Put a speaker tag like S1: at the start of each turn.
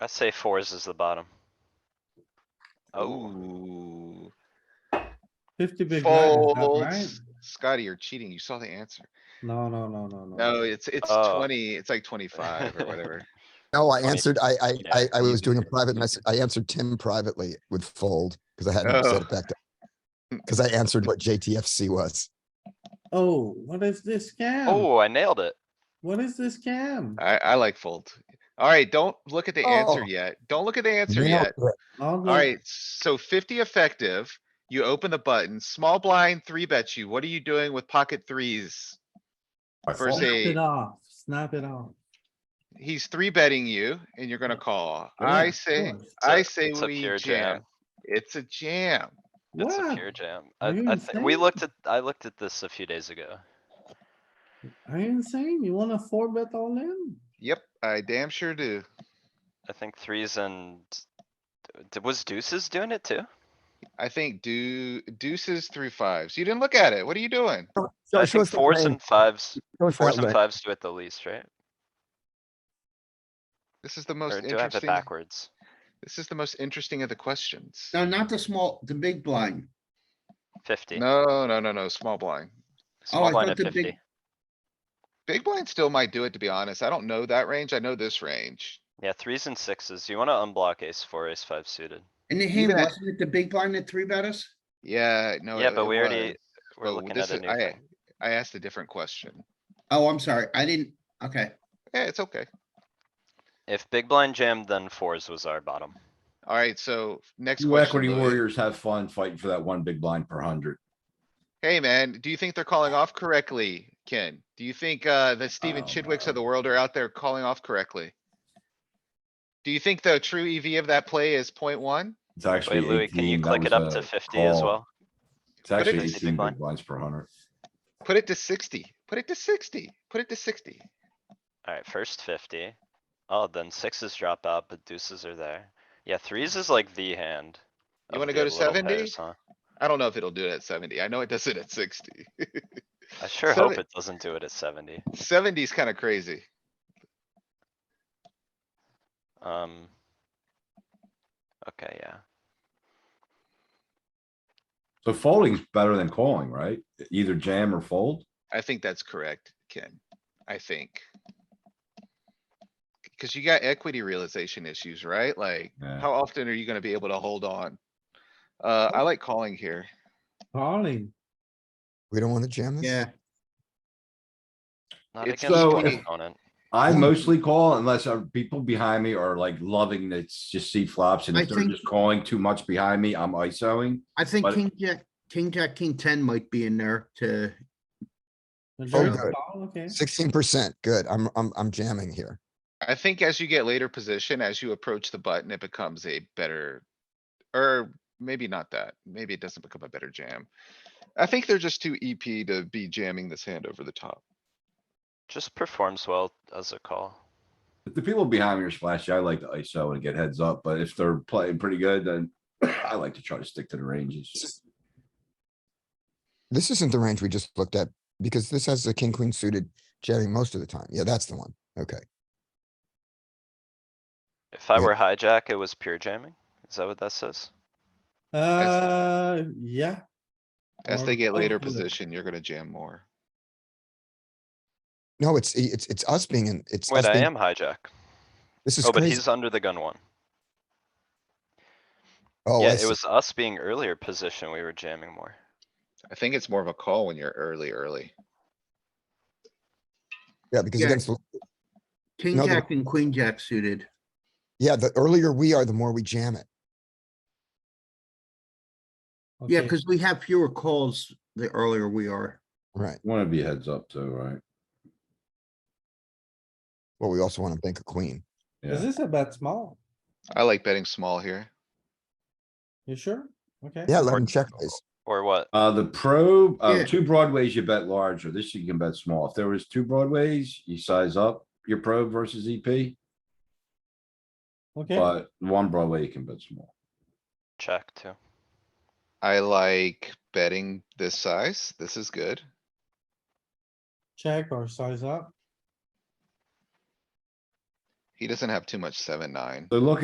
S1: I say fours is the bottom. Oh,
S2: Oh,
S3: Fifty big blind, is that right?
S2: folds. Scotty, you're cheating. You saw the answer.
S3: No, no, no, no, no.
S2: No, it's, it's
S1: Oh.
S2: twenty, it's like twenty-five or whatever.
S4: No, I
S1: Funny.
S4: answered, I, I,
S1: Yeah.
S4: I, I was doing a private and I, s- I answered Tim privately with fold because I hadn't
S1: Oh.
S4: set it back down.
S1: Hmm.
S4: Because I answered what JTFC was.
S3: Oh, what is this scam?
S1: oh, I nailed it.
S3: What is this scam?
S2: I, I like fold. Alright, don't look at the answer
S4: Oh.
S2: yet. Don't look at the answer
S4: Nailed
S2: yet.
S4: it.
S3: All the-
S2: Alright, so fifty effective. You open the button, small blind, three bets you. What are you doing with pocket threes?
S5: I
S2: First
S5: fold.
S3: Snap
S2: eight.
S3: it off, snap it off.
S2: He's three betting you and you're gonna call.
S3: Yeah,
S2: I Uh,
S3: of
S2: say,
S3: course.
S1: a-
S2: I say
S1: it's a
S2: we
S1: pure
S2: jam.
S1: jam.
S2: It's a jam.
S1: It's a
S3: What?
S1: pure jam. I,
S3: Are you
S1: I
S5: Mm,
S1: think, we
S3: insane?
S1: looked at, I looked at this a few days ago.
S3: Are you insane? You wanna four bet all in?
S2: Yep, I damn sure do.
S1: I think threes and, d- was deuces doing it too?
S2: I think deu- deuces through fives. You didn't look at it. What are you doing?
S4: So
S1: I
S4: show
S1: think
S4: us the
S1: fours
S4: play.
S1: and fives,
S4: Show us
S1: fours
S4: that
S1: and
S4: way.
S1: fives do it the least, right?
S2: This is the most
S1: Or do I have it
S2: interesting,
S1: backwards?
S2: this is the most interesting of the questions.
S5: No, not the small, the big blind.
S1: Fifty.
S2: No, no, no, no, small blind.
S5: Oh, I
S1: Small blind
S5: thought
S1: at
S5: the big-
S1: fifty.
S2: Big blind still might do it, to be honest. I don't know that range. I know this range.
S1: Yeah, threes and sixes. You wanna unblock ace four, ace five suited.
S5: In the hand,
S2: Even at-
S5: wasn't it the big blind that three bet us?
S2: Yeah, no.
S1: Yeah,
S2: it-
S1: but
S2: it
S1: we already-
S2: was.
S1: We're
S2: Oh,
S1: looking
S2: this
S1: at a
S2: is-
S1: new
S2: I-
S1: thing.
S2: I asked a different question.
S5: Oh, I'm sorry. I didn't, okay.
S2: Yeah, it's okay.
S1: If big blind jammed, then fours was our bottom.
S2: Alright, so next
S6: You
S2: question.
S6: equity
S2: Louis.
S6: warriors have fun fighting for that one big blind per hundred.
S2: Hey, man, do you think they're calling off correctly, Ken? Do you think, uh, the Stephen
S6: Oh,
S2: Chidwicks
S6: no.
S2: of the world are out there calling off correctly? Do you think the true EV of that play is point one?
S6: It's actually
S1: Wait, Louis, can you
S6: eighteen. That
S1: click it
S6: was
S1: up
S6: a
S1: to fifty as
S6: call.
S1: well?
S6: It's actually
S2: Put it to
S1: big
S6: eighteen
S1: blind.
S6: big blinds per hundred.
S2: Put it to sixty, put it to sixty, put it to sixty.
S1: Alright, first fifty. Oh, then sixes drop out, but deuces are there. Yeah, threes is like the hand.
S2: You
S1: of
S2: wanna
S1: the
S2: go to
S1: little
S2: 70?
S1: pairs, huh?
S2: I don't know if it'll do it at seventy. I know it does it at sixty.
S1: I sure
S2: So
S1: hope
S2: the-
S1: it doesn't do it at seventy.
S2: Seventy is kinda crazy.
S1: Um. Okay, yeah.
S6: So folding's better than calling, right? Either jam or fold.
S2: I think that's correct, Ken. I think. Cause you got equity realization issues, right? Like,
S6: Yeah.
S2: how often are you gonna be able to hold on? Uh, I like calling here.
S3: Calling.
S4: We don't want to jam this?
S5: Yeah.
S1: Not
S2: It's
S1: against
S6: so-
S1: one
S6: it-
S1: opponent.
S6: I mostly call unless uh, people behind me are like loving to s- just see flops and
S5: I
S6: if they're
S5: think-
S6: just calling too much behind me, I'm ISOing.
S5: I think
S6: But-
S5: king jack, king jack, king ten might be in there to,
S3: Majority
S4: good.
S3: call, Okay.
S4: Sixteen percent, good. I'm, I'm, I'm jamming here.
S2: I think as you get later position, as you approach the button, it becomes a better, or maybe not that. Maybe it doesn't become a better jam. I think they're just too EP to be jamming this hand over the top.
S1: Just performs well as a call.
S6: If the people behind me are splashy, I like to ISO and get heads up, but if they're playing pretty good, then I like to try to stick to the ranges.
S4: This isn't the range we just looked at because this has a king, queen suited jamming most of the time. Yeah, that's the one. Okay.
S1: If I
S4: Yeah.
S1: were hijack, it was pure jamming. Is that what that says?
S3: Uh, yeah.
S2: As they
S3: Or-
S2: get
S3: or
S2: later
S3: pull it.
S2: position, you're gonna jam more.
S4: No, it's, e, it's, it's us being in, it's
S1: Wait,
S4: us
S1: I
S4: being,
S1: am hijack.
S4: this is
S1: Oh, but
S4: crazy.
S1: he's under the gun one.
S4: Oh,
S1: Yeah,
S4: I
S1: it
S4: see.
S1: was us being earlier position. We were jamming more.
S2: I think it's more of a call when you're early, early.
S4: yeah, because
S5: Yeah.
S4: against, the-
S5: king
S4: No, the-
S5: jack and queen jack suited.
S4: yeah, the earlier we are, the more we jam it.
S5: Yeah,
S3: Okay.
S5: because we have fewer calls the earlier we are.
S4: Right.
S6: Wanna be heads up too, right?
S4: Well, we also want to bank a queen.
S3: Is
S6: Yeah,
S3: this a bet small?
S2: I like betting small here.
S3: You sure? Okay.
S4: Yeah, let him check this.
S1: Or what?
S6: uh, the pro, uh,
S5: Yeah.
S6: two broadways you bet large, or this you can bet small. If there was two broadways, you size up your pro versus EP,
S3: Okay,
S6: but one broadway you can bet small.
S1: Check too.
S2: I like betting this size. This is good.
S3: check or size up.
S2: He doesn't have too much seven, nine.
S6: So look